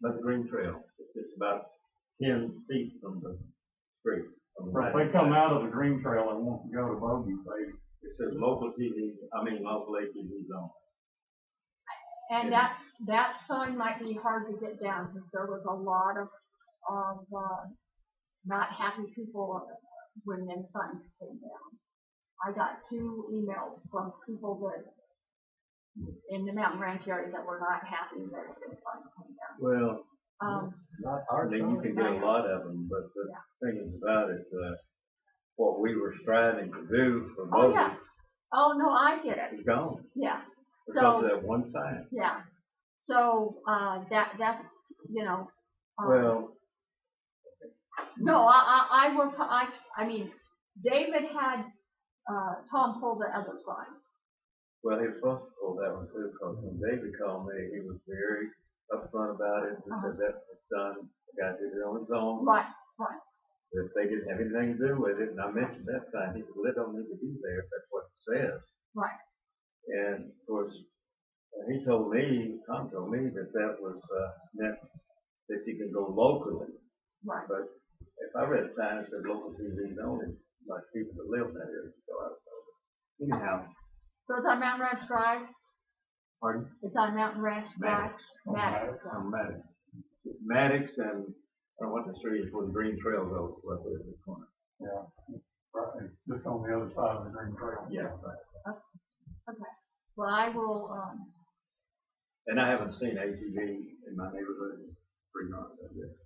That's Green Trail, it's just about ten feet from the street. from the If main they come path. out of the green trail and want to go to Bogey, they, It says local TV, I mean, local ATVs on. And that, that sign might be hard to get down, because there was a lot of, of, uh, not happy people when them signs came down. I got two emails from people that, in the Mountain Ranch area that were not happy that the sign came down. Well, Um, not hardly, you can get a lot of them, but the thing is about it, uh, what we were striving to do for Oh, Bogey yeah. oh, no, I get it, is gone. yeah. Because So, of that one sign. yeah, so, uh, that, that's, you know. um, Well, No, I, I, I will, t- I, I mean, David had, uh, Tom pull the other sign. well, he was supposed to pull that one too, because when David called me, he was very upfront about it, and Uh-huh. said that was done, the guy did it on his own. Right, If they didn't have anything to do with it, and I mentioned that sign, he said, well, it don't need to be there, if that's what it says. Right. And of course, uh, he told me, Tom told me that that was, uh, meant that you can go locally. right. But if I read a sign that said local TV's only, like people that live in that area, so I was told. Anyhow, So it's on Mountain Ranch Drive, pardon? it's on Mountain Ranch Drive. Maddox. Maddox. on Maddox. Maddox and, I don't want to street is where the Green Trail goes, right there at the corner. yeah, right, it's just on the other side of the green trail. Yeah, right. Well, I will, um, And I haven't seen ATV in my neighborhood in three months, I guess.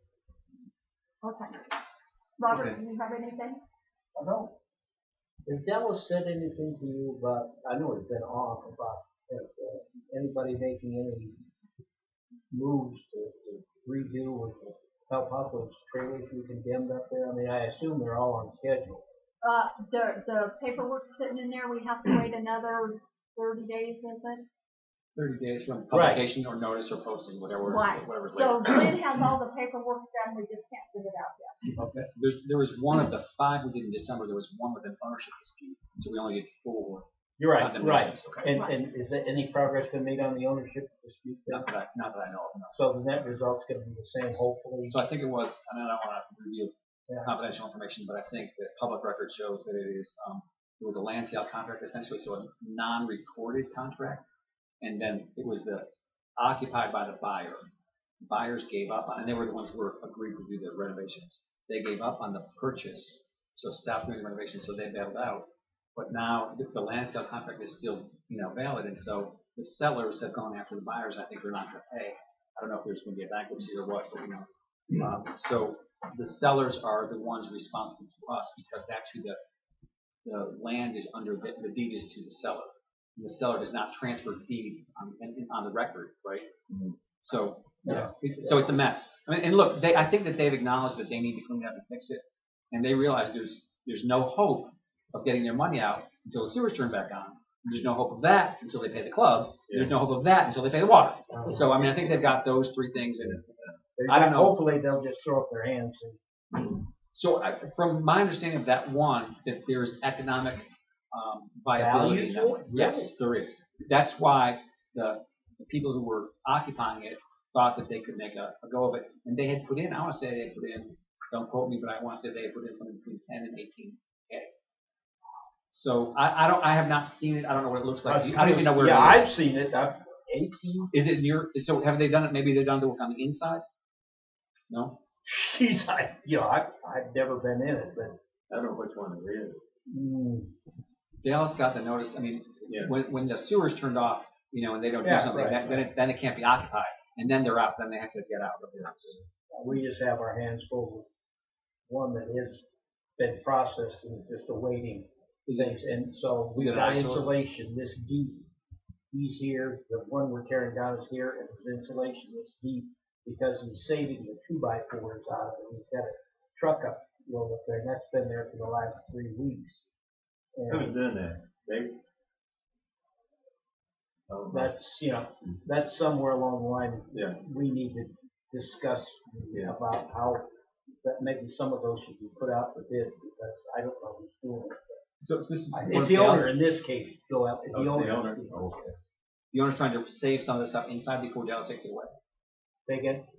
okay. Robert, Okay. do you have anything? I don't, Has Dallas said anything to you about, I know it's been off, about uh, uh, anybody making any moves to to redo or to help out those trailers you condemned up there? I mean, I assume they're all on schedule. Uh, the, the paperwork's sitting in there, we have to wait another thirty days, is it? Thirty days from Right. publication or notice or posting, whatever, Right. whatever. So Glenn has all the paperwork done, we just can't get it out yet. There's, there was one of the five we did in December, there was one with an ownership dispute, so we only did four. You're condemnations. Okay. And, and is there any progress been made on the ownership dispute? then? Not that I, not that I know of, no. So the net result's gonna be the same, hopefully. So I think it was, and I don't wanna reveal Yeah. confidential information, but I think that public record shows that it is, um, it was a land sale contract essentially, so a non-recorded contract. And then it was the occupied by the buyer. Buyers gave up, on and they were the ones who were agreed to do the renovations. They gave up on the purchase, so stopped doing the renovations, so they bailed out. But now the- the land sale contract is still, you know, valid, and so the sellers have gone after the buyers, I think they're not gonna pay. I don't know if there's gonna be a bankruptcy or what, but you know, um, So the sellers are the ones responsible to us because actually the, the land is under, the the deed is to the seller. And The seller does not transfer deed on, in- on the record, right? Mhm. So, yeah, it- so it's a mess. I mean, And look, they, I think that they've acknowledged that they need to clean it up and fix it. And they realize there's, there's no hope of getting their money out until the sewer's turned back on. There's no hope of that until they pay the club. There's no hope of that until they pay the water. Um, So, I mean, I think they've got those three things in it. they're I don't not- know. Hopefully, they'll just throw up their hands and So I, from my understanding of that one, that there is economic um, viability Value to in that one. it? Yes, there is. That's why the, the people who were occupying it thought that they could make a, a go of it. And they had put in, I want to say they had put in, don't quote me, but I want to say they had put in something between 10 and 18K. So I, I don't, I have not seen it. I don't know what it looks like. I don't even know where Yeah, it I've is. seen it, I've, eighteen, Is it in your, so have they done it? Maybe they've done the work on the inside? No? geez, I, you know, I've, I've never been in it, but, I don't know which one it is. mm, Dallas got the notice, I mean, Yeah. when, when the sewer's turned off, you know, and they don't do Yeah, something, right, that- then, it- then it can't be occupied, and then they're out, then they have to get out of the house. We just have our hands full with one that has been processed and is just awaiting things, and so we Is it got ISO? insulation this deep. He's here, the one we're tearing down is here, and his insulation is deep, because he's saving the two by fours out of it, he's got a truck up load up there, and that's been there for the last three weeks. Who's And doing that? David? Oh, that's, you know, that's somewhere along the line, Yeah, we need to discuss Yeah. about how, that maybe some of those should be put out for bid, because I don't know who's doing it. So this is. I- one It's of the Dallas- owner in this case, Bill, it's Oh, the the owner. owner, okay. The owner's trying to save some of this stuff inside before Dallas takes it away. They get,